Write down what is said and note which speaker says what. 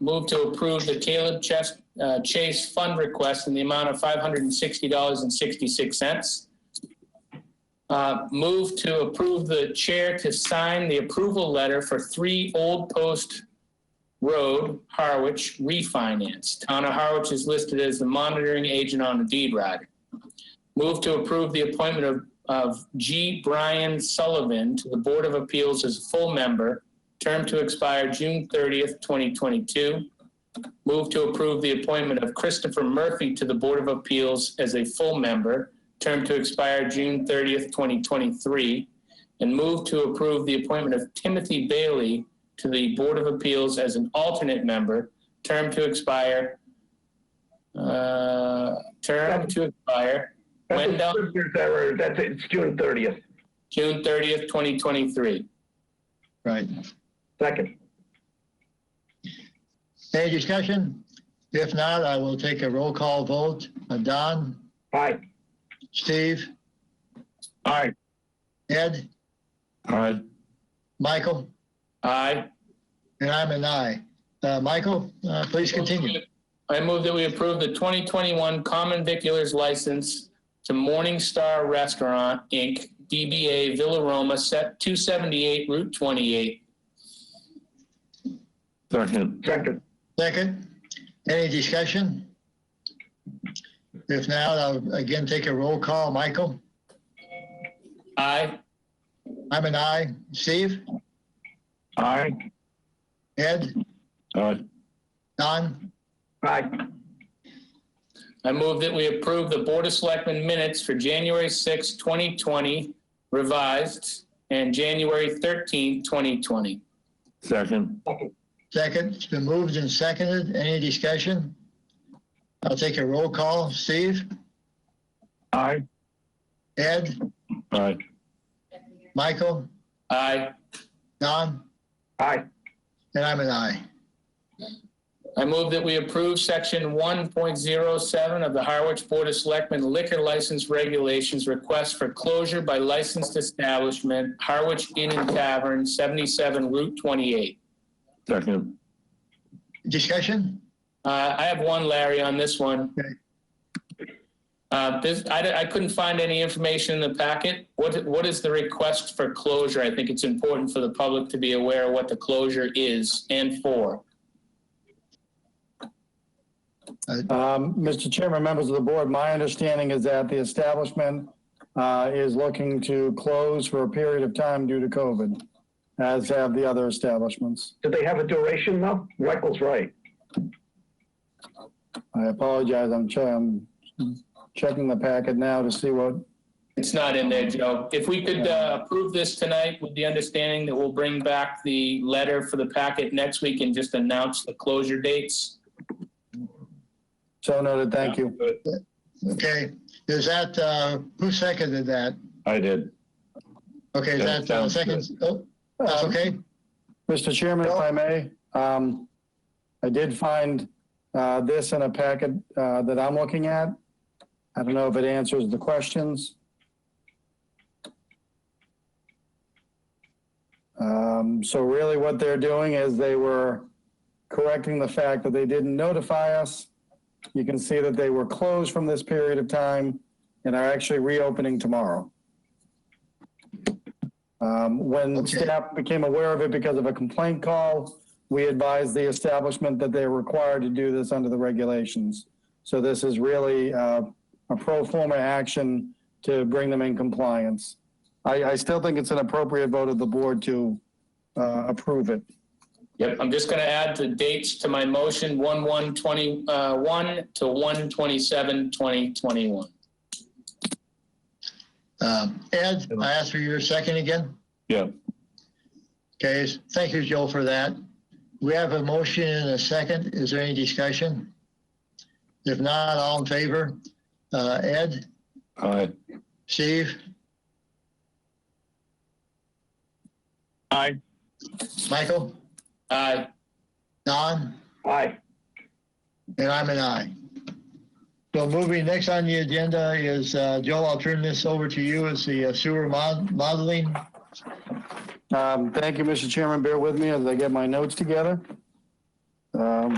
Speaker 1: Move to approve the Caleb Chase, uh, Chase Fund Request in the amount of five hundred and sixty dollars and sixty-six cents. Uh, move to approve the chair to sign the approval letter for three Old Post Road, Harwich refinance. Town of Harwich is listed as the monitoring agent on the deed rider. Move to approve the appointment of, of G. Brian Sullivan to the Board of Appeals as a full member, term to expire June thirtieth, twenty twenty-two. Move to approve the appointment of Christopher Murphy to the Board of Appeals as a full member, term to expire June thirtieth, twenty twenty-three. And move to approve the appointment of Timothy Bailey to the Board of Appeals as an alternate member, term to expire. Uh, term to expire
Speaker 2: That's
Speaker 1: Wendell?
Speaker 2: a scripters error. That's it. It's June thirtieth.
Speaker 1: June thirtieth, twenty twenty-three.
Speaker 3: Right.
Speaker 2: Second.
Speaker 3: Any discussion? If not, I will take a roll call vote. Uh, Don,
Speaker 2: Aye.
Speaker 3: Steve,
Speaker 2: Aye.
Speaker 3: Ed,
Speaker 2: Aye.
Speaker 3: Michael,
Speaker 1: Aye.
Speaker 3: and I'm an aye. Uh, Michael, uh, please continue.
Speaker 1: I move that we approve the 2021 common viculars license to Morning Star Restaurant, Inc., DBA Villa Roma, set 278 Route 28.
Speaker 4: Second,
Speaker 2: Second.
Speaker 3: Second, any discussion? If not, I'll again take a roll call. Michael,
Speaker 1: Aye.
Speaker 3: I'm an aye. Steve,
Speaker 2: Aye.
Speaker 3: Ed,
Speaker 4: aye,
Speaker 3: Don,
Speaker 2: Aye.
Speaker 1: I move that we approve the Board of Selectmen minutes for January 6, 2020 revised and January 13, 2020.
Speaker 4: second,
Speaker 3: second. It's been moved and seconded. Any discussion? I'll take a roll call. Steve,
Speaker 2: Aye.
Speaker 3: Ed,
Speaker 4: aye,
Speaker 3: Michael,
Speaker 1: Aye.
Speaker 3: Don,
Speaker 2: Aye.
Speaker 3: and I'm an aye.
Speaker 1: I move that we approve section one point zero seven of the Harwich Board of Selectmen liquor license regulations request for closure by licensed establishment, Harwich Inn and Tavern, seventy-seven Route twenty-eight.
Speaker 4: second,
Speaker 3: Discussion?
Speaker 1: Uh, I have one, Larry, on this one.
Speaker 3: Okay.
Speaker 1: Uh, this, I, I couldn't find any information in the packet. What, what is the request for closure? I think it's important for the public to be aware of what the closure is and for.
Speaker 5: Um, Mr. Chairman, members of the board, my understanding is that the establishment uh, is looking to close for a period of time due to COVID, as have the other establishments.
Speaker 2: Do they have a duration though? Michael's right.
Speaker 5: I apologize, I'm che- I'm checking the packet now to see what,
Speaker 1: It's not in there, Joe. If we could uh, approve this tonight with the understanding that we'll bring back the letter for the packet next week and just announce the closure dates.
Speaker 5: so noted, thank you.
Speaker 3: Okay, is that, uh, who seconded that?
Speaker 4: I did,
Speaker 3: Okay, is
Speaker 4: That
Speaker 3: that, uh,
Speaker 4: sounds
Speaker 3: second,
Speaker 4: good.
Speaker 3: oh, that's
Speaker 5: Um,
Speaker 3: okay?
Speaker 5: Mr. Chairman, if I may, um, I did find, uh, this in a packet, uh, that I'm looking at. I don't know if it answers the questions. Um, so really what they're doing is they were correcting the fact that they didn't notify us. You can see that they were closed from this period of time and are actually reopening tomorrow. Um, when
Speaker 3: Okay.
Speaker 5: staff became aware of it because of a complaint call, we advised the establishment that they're required to do this under the regulations. So this is really uh, a pro forma action to bring them in compliance. I, I still think it's an appropriate vote of the board to uh, approve it.
Speaker 1: Yep. I'm just going to add the dates to my motion, one one twenty uh, one to one twenty seven twenty twenty one.
Speaker 3: Um, Ed, I asked for your second again?
Speaker 4: yeah,
Speaker 3: Okay, s- thank you, Joe, for that. We have a motion and a second. Is there any discussion? If not, all in favor? Uh, Ed,
Speaker 4: aye,
Speaker 3: Steve?
Speaker 2: Aye.
Speaker 3: Michael?
Speaker 1: Aye.
Speaker 3: Don?
Speaker 2: Aye.
Speaker 3: And I'm an aye. So moving next on the agenda is, uh, Joe, I'll turn this over to you. It's the uh, sewer mod- modeling.
Speaker 5: Um, Thank you, Mr. Chairman. Bear with me as I get my notes together. Um,